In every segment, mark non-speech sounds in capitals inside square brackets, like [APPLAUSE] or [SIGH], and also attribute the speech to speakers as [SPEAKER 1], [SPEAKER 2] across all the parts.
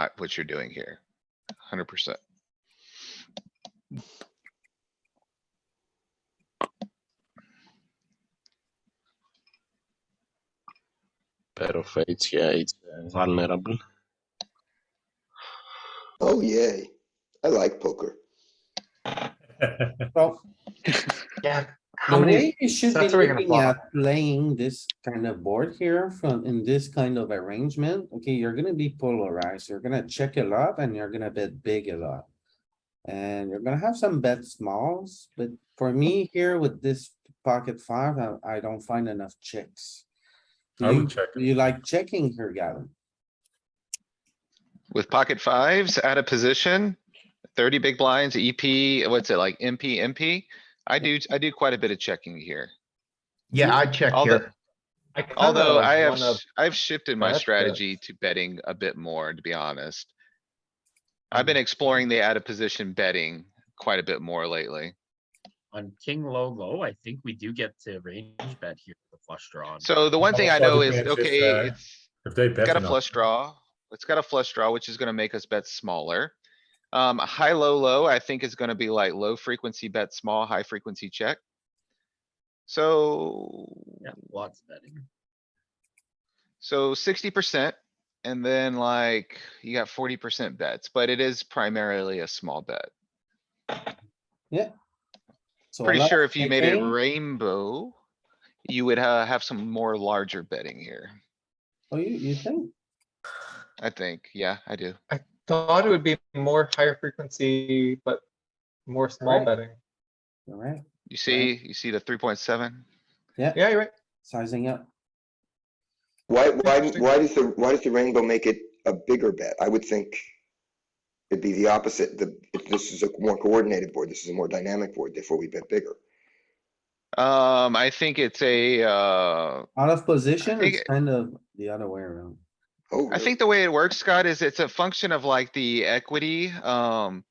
[SPEAKER 1] I- uh, what you're doing here. Hundred percent.
[SPEAKER 2] pair of eights. Yeah, it's uh, vulnerable.
[SPEAKER 3] Oh, yay. I like poker.
[SPEAKER 4] Well,
[SPEAKER 5] Yeah, how
[SPEAKER 4] the
[SPEAKER 5] many?
[SPEAKER 4] way you should be
[SPEAKER 5] sets are we gonna
[SPEAKER 4] looking
[SPEAKER 5] flop?
[SPEAKER 4] at playing this kind of board here from, in this kind of arrangement, okay, you're gonna be polarized. You're gonna check a lot and you're gonna bet big a lot. And you're gonna have some bet smalls, but for me here with this pocket five, I, I don't find enough checks.
[SPEAKER 6] I
[SPEAKER 4] You-
[SPEAKER 6] would check.
[SPEAKER 4] You like checking here, Gavin?
[SPEAKER 1] With pocket fives out of position, thirty big blinds, EP, what's it like, MP, MP? I do, I do quite a bit of checking here.
[SPEAKER 5] Yeah, I check
[SPEAKER 1] Although-
[SPEAKER 5] here. I kinda
[SPEAKER 1] Although
[SPEAKER 5] was
[SPEAKER 1] I have,
[SPEAKER 5] one of-
[SPEAKER 1] sh- I've shifted my
[SPEAKER 5] that's good.
[SPEAKER 1] strategy to betting a bit more, to be honest. I've been exploring the out of position betting quite a bit more lately.
[SPEAKER 7] on king low low, I think we do get to range bet here, with the flush draw. and
[SPEAKER 1] So the one thing I
[SPEAKER 6] Also,
[SPEAKER 1] know
[SPEAKER 6] the
[SPEAKER 1] is,
[SPEAKER 6] advantage is,
[SPEAKER 1] okay,
[SPEAKER 6] uh,
[SPEAKER 1] it's,
[SPEAKER 6] If they
[SPEAKER 1] it's
[SPEAKER 6] bet
[SPEAKER 1] got a
[SPEAKER 6] enough.
[SPEAKER 1] flush draw. It's got a flush draw, which is gonna make us bet smaller. Um, high, low, low, I think is gonna be like low frequency bet small, high frequency check. So,
[SPEAKER 7] Yeah, lots of betting.
[SPEAKER 1] so sixty percent and then like you got forty percent bets, but it is primarily a small bet.
[SPEAKER 4] So a
[SPEAKER 1] Pretty
[SPEAKER 4] lot
[SPEAKER 1] sure
[SPEAKER 4] of
[SPEAKER 1] if you made it
[SPEAKER 4] checking.
[SPEAKER 1] rainbow, you would uh, have some more larger betting here.
[SPEAKER 4] Oh, you, you think?
[SPEAKER 1] I think, yeah, I do.
[SPEAKER 8] Thought it would be more higher frequency, but more small
[SPEAKER 4] Right.
[SPEAKER 8] betting.
[SPEAKER 4] Alright,
[SPEAKER 1] You see, you see the three point seven?
[SPEAKER 8] Yeah, you're right.
[SPEAKER 4] sizing up.
[SPEAKER 3] Why, why,
[SPEAKER 8] Interesting.
[SPEAKER 3] why does the, why does the rainbow make it a bigger bet? I would think it'd be the opposite. The, if this is a more coordinated board, this is a more dynamic board, therefore we bet bigger.
[SPEAKER 1] Um, I think it's a, uh,
[SPEAKER 4] Out of position,
[SPEAKER 1] think
[SPEAKER 4] it's
[SPEAKER 1] it-
[SPEAKER 4] kind of the other way around.
[SPEAKER 3] Oh,
[SPEAKER 1] I
[SPEAKER 3] really?
[SPEAKER 1] think the way it works, Scott, is it's a function of like the equity, um.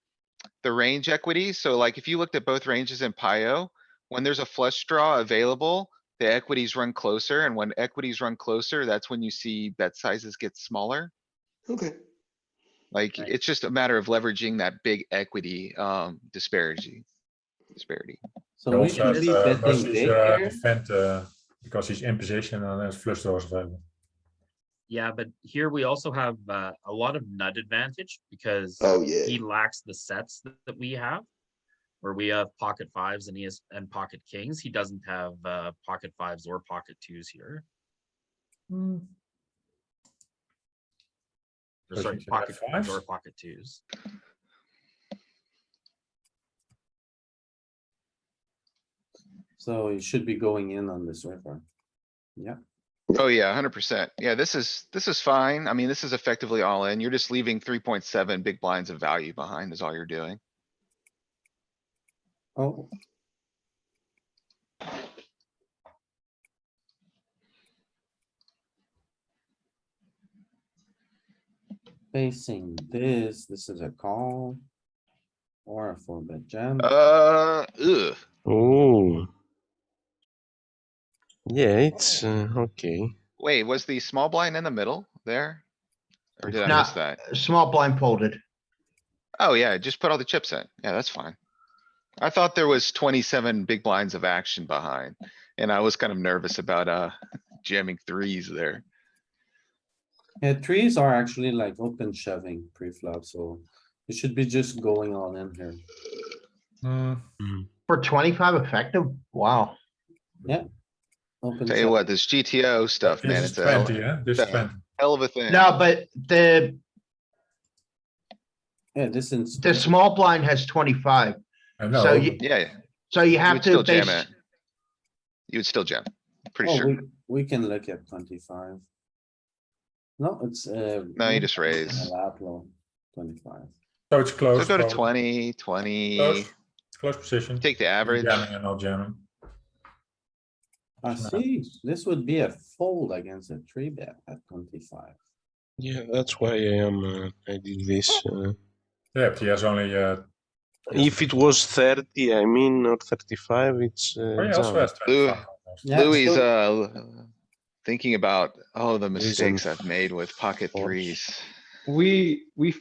[SPEAKER 1] The range equity, so like if you looked at both ranges in Pio, when there's a flush draw available, the equities run closer, and when equities run closer, that's when you see bet sizes get smaller.
[SPEAKER 3] Okay.
[SPEAKER 1] Like,
[SPEAKER 7] Right.
[SPEAKER 1] it's just a matter of leveraging that big equity, um, disparity. Disparity.
[SPEAKER 4] So we
[SPEAKER 6] Also,
[SPEAKER 4] should be
[SPEAKER 6] uh,
[SPEAKER 4] betting
[SPEAKER 6] Mostly
[SPEAKER 4] big
[SPEAKER 6] uh,
[SPEAKER 4] here.
[SPEAKER 6] defend uh, because he's in position and has flush draws available.
[SPEAKER 7] Yeah, but here we also have uh, a lot of nut advantage because
[SPEAKER 3] Oh, yeah.
[SPEAKER 7] he lacks the sets th- that we have. Where we have pocket fives and he has and pocket kings, he doesn't have uh, pocket fives or pocket twos here. Or
[SPEAKER 6] Does
[SPEAKER 7] sorry,
[SPEAKER 6] he have
[SPEAKER 7] pocket fives or
[SPEAKER 6] fives?
[SPEAKER 7] pocket twos.
[SPEAKER 4] So you should be going in on this river.
[SPEAKER 1] Oh, yeah, hundred percent. Yeah, this is, this is fine. I mean, this is effectively all in. You're just leaving three point seven big blinds of value behind is all you're doing.
[SPEAKER 4] Oh, facing this, this is a call. Or a four bet jam.
[SPEAKER 1] Uh, ugh.
[SPEAKER 2] Oh. Yeah, it's uh, okay.
[SPEAKER 1] Wait, was the small blind in the middle there? Or did I
[SPEAKER 5] Nah.
[SPEAKER 1] miss that?
[SPEAKER 5] Small blind folded.
[SPEAKER 1] Oh, yeah, just put all the chips in. Yeah, that's fine. I thought there was twenty-seven big blinds of action behind, and I was kind of nervous about, uh, [LAUGHS] jamming threes there.
[SPEAKER 4] Yeah, trees are actually like open shoving pre-flop, so you should be just going all in here.
[SPEAKER 5] For twenty-five effective, wow.
[SPEAKER 4] Open
[SPEAKER 1] Tell you
[SPEAKER 4] shove-
[SPEAKER 1] what, this GTO stuff, man,
[SPEAKER 6] This is
[SPEAKER 1] it's a
[SPEAKER 6] twenty, yeah, this is
[SPEAKER 1] Yeah.
[SPEAKER 6] twenty.
[SPEAKER 1] hell of a thing.
[SPEAKER 5] No, but the,
[SPEAKER 4] Yeah, this is.
[SPEAKER 5] the small blind has twenty-five,
[SPEAKER 6] I
[SPEAKER 5] So
[SPEAKER 6] know,
[SPEAKER 5] you-
[SPEAKER 1] Yeah, yeah,
[SPEAKER 5] so you
[SPEAKER 1] you
[SPEAKER 5] have
[SPEAKER 1] would
[SPEAKER 5] to
[SPEAKER 1] still jam
[SPEAKER 5] base.
[SPEAKER 1] it. You would still jam, pretty
[SPEAKER 4] Oh,
[SPEAKER 1] sure.
[SPEAKER 4] we, we can look at twenty-five. No, it's, uh.
[SPEAKER 1] No, you just
[SPEAKER 4] [LAUGHS]
[SPEAKER 1] raise.
[SPEAKER 4] allowed low, Twenty-five.
[SPEAKER 6] so it's
[SPEAKER 1] So
[SPEAKER 6] close.
[SPEAKER 1] go to
[SPEAKER 6] close,
[SPEAKER 1] twenty, twenty,
[SPEAKER 6] Close, close position.
[SPEAKER 1] take the average.
[SPEAKER 6] Jamming and not jamming.
[SPEAKER 4] I see, this would be a fold against a three bet at twenty-five.
[SPEAKER 2] Yeah, that's why I am. Uh, I did this. Uh,
[SPEAKER 6] Yeah, but he has only, uh,
[SPEAKER 2] if it was thirty, I mean, or thirty-five, it's. Uh,
[SPEAKER 6] oh, he also
[SPEAKER 2] jam.
[SPEAKER 6] has twenty-five. almost.
[SPEAKER 4] Yeah,
[SPEAKER 1] Louis, is,
[SPEAKER 4] so-
[SPEAKER 1] uh, thinking about, oh, the
[SPEAKER 2] Louis is
[SPEAKER 1] mistakes
[SPEAKER 2] in
[SPEAKER 1] I've made with pocket
[SPEAKER 2] fours.
[SPEAKER 1] threes.
[SPEAKER 8] we, we